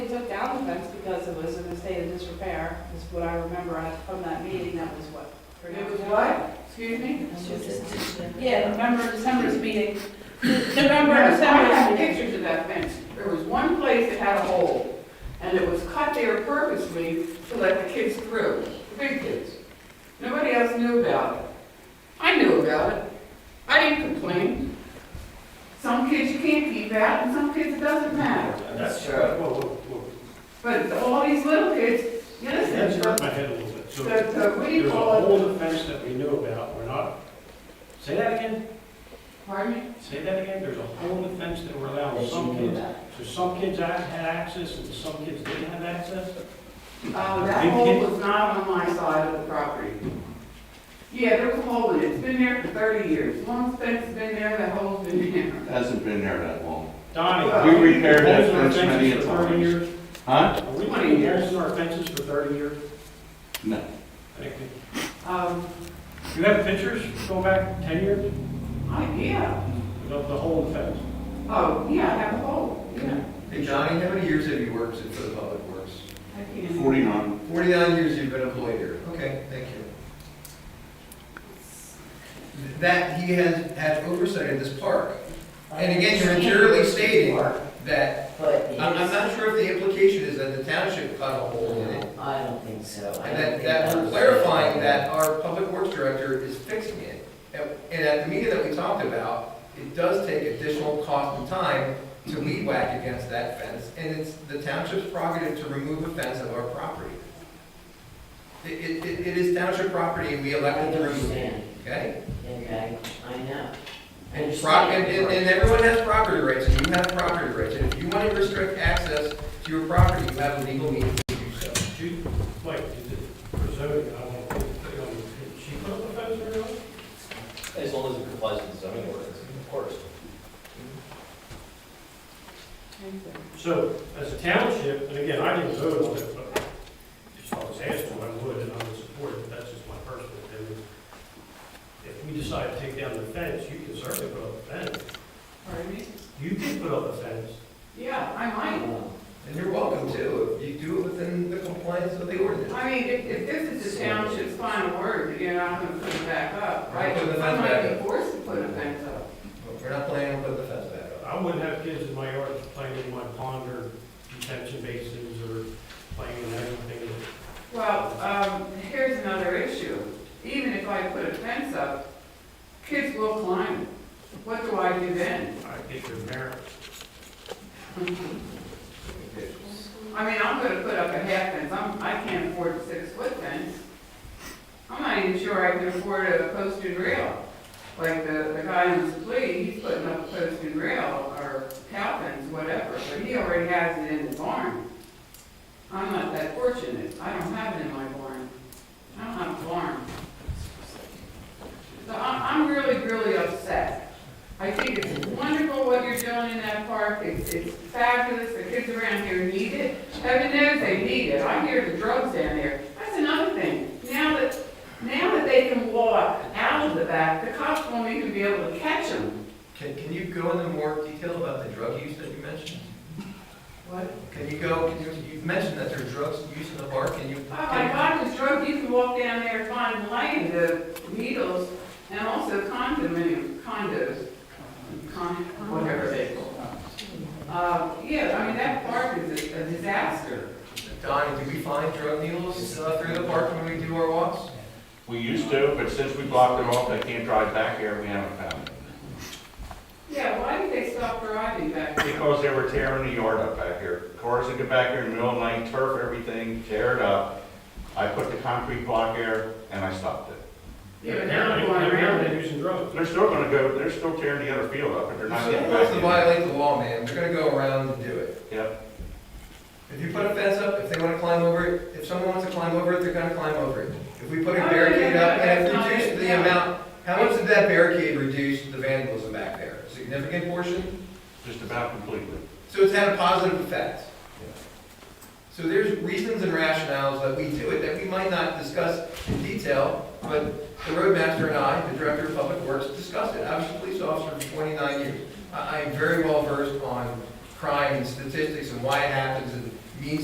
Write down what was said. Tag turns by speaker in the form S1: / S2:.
S1: offense, because it was in a state of disrepair, is what I remember I- from that meeting, that was what? It was what? Excuse me? Yeah, November, December's meeting, November,
S2: Yes, I
S1: December's
S2: have
S1: meeting.
S2: pictures of that fence. There was one place that had a hole, and it was cut there purposely to let the kids through, the big kids. Nobody else knew about it. I knew about it. I didn't complain. Some kids you can't keep out, and some kids it doesn't matter.
S3: That's true.
S4: Whoa, whoa, whoa.
S2: But all these little kids, you
S4: That's
S2: listen,
S4: hurt
S2: the,
S4: my head a little bit. So there's
S2: the, what do you
S4: a
S2: call it?
S4: whole offense that we knew about, we're not, say that again,
S2: Pardon me?
S4: say that again, there's a whole offense that we're allowing
S3: That you
S4: some
S3: knew
S4: kids.
S3: about.
S4: So some kids had had access and some kids didn't have access?
S2: Uh, that
S4: Big
S2: hole
S4: kid.
S2: was not on my side of the property. Yeah, there was a hole in it, it's been there for thirty years, one fence has been there, that hole's been there.
S5: Hasn't been there that long.
S4: Donnie.
S2: Well,
S5: We repaired
S4: holes
S5: that
S4: in our
S5: fence many a
S4: fences for 30
S5: times.
S4: years?
S5: Huh?
S4: Are we
S2: Twenty
S4: putting
S2: years.
S4: holes in our fences for thirty years?
S5: No.
S4: I think we-
S2: Um,
S4: You have pictures going back ten years
S2: I, yeah,
S4: of the whole fence?
S2: oh, yeah, I have a hole, yeah.
S6: Hey Johnny, how many years have you worked for the Public Works?
S2: I can't-
S5: Forty-nine.
S6: Forty-nine years you've been employed here. Okay, thank you. That, he has, has oversight of this park. And again, you're materially stating that,
S3: But
S6: I'm, I'm
S3: it's,
S6: not sure if the implication is that the township cut a hole in it.
S3: I don't think so. I
S6: And
S3: don't think
S6: that, that we're
S3: was-
S6: clarifying that our Public Works Director is fixing it. And- And at the meeting that we talked about, it does take additional cost and time to weed whack against that fence, and it's the township's prerogative to remove a fence of our property. It, it, it- it is township property, and we
S3: I
S6: elected to remove it,
S3: understand,
S6: okay?
S3: okay, I know. I
S6: And pro-
S3: understand.
S6: and, and and everyone has property rights, and you have property rights, and if you want to restrict access to your property, you have a legal means to do so.
S4: She, wait, is it for zoning, I want to put it on, did she put up a fence or not?
S7: As long as it complies with the zoning ordinance, of course.
S4: So, as a township, and again, I didn't vote on it, but if I was asked to, I would, and I would support it, but that's just my personal opinion. If we decide to take down the fence, you can certainly put up a fence,
S2: Pardon me?
S4: you can put up a fence.
S2: Yeah, I might,
S3: Well,
S6: And you're welcome to, if you do it within the compliance of the ordinance.
S2: I mean, if, if this is the township's final word, you know, I'm gonna put it back up, right?
S6: Put the
S2: I
S6: fence
S2: might
S6: back
S2: be
S6: up.
S2: forced to put a fence up.
S6: We're not planning on putting the fence back up.
S4: I wouldn't have kids in my yard playing in my pond or detention basins or playing in everything.
S2: Well, um, here's another issue. Even if I put a fence up, kids will climb. it. What do I do then?
S4: I get your parents.
S2: I mean, I'm gonna put up a half fence. I'm, I can't afford a six-foot fence. I'm not even sure I can afford a posted rail. Like the, the guy in the plea, he's putting up a posted rail or cow fence, whatever, but he already has it in his barn. I'm not that fortunate. I don't have it in my barn. I don't have a barn. So I'm, I'm really, really upset. I think it's wonderful what you're doing in that park, it's, it's fabulous, the kids around here need it. Heaven knows they need it, I hear the drugs down there, that's another thing. Now that, now that they can walk out of the back, the cops won't even be able to catch them.
S6: Can, can you go into more detail about the drug use that you mentioned?
S2: What?
S6: Can you go, can you, you mentioned that there's drugs used in the park, can you?
S2: Oh my God, this drug, you can walk down there and find light, the needles, and also condominium, condos, con, whatever they call them. Uh, yeah, I mean, that park is a a disaster.
S6: Donnie, do we find drug needles uh, through the park when we do our walks?
S5: We used to, but since we blocked it off, they can't drive back here, we haven't found it.
S2: Yeah, why did they stop driving back there?
S5: Because they were tearing the yard up back here. Cars would get back here in the middle of the night, turf everything, tear it up. I put the concrete block there and I stopped it.
S2: Yeah, but now
S4: Now,
S2: they're going
S4: now
S2: around
S4: they're
S2: it.
S4: using drugs.
S5: They're still gonna go, they're still tearing the other field up, but they're not getting
S6: Someone
S5: back
S6: has to
S5: in.
S6: violate the law, man, they're gonna go around and do it.
S5: Yep.
S6: If you put a fence up, if they wanna climb over it, if someone wants to climb over it, they're gonna climb over it. If we put a
S2: Oh, yeah,
S6: barricade
S2: yeah,
S6: up, and
S2: that's not
S6: it
S2: it,
S6: reduced the
S2: yeah.
S6: amount, how much did that barricade reduce the vandalism back there? Significant portion?
S5: Just about completely.
S6: So it's had a positive effect. So there's reasons and rationales that we do it that we might not discuss in detail, but the roadmaster and I, the director of public works, discussed it. I was a police officer for 29 years. I I am very well versed on crime and statistics and why it happens and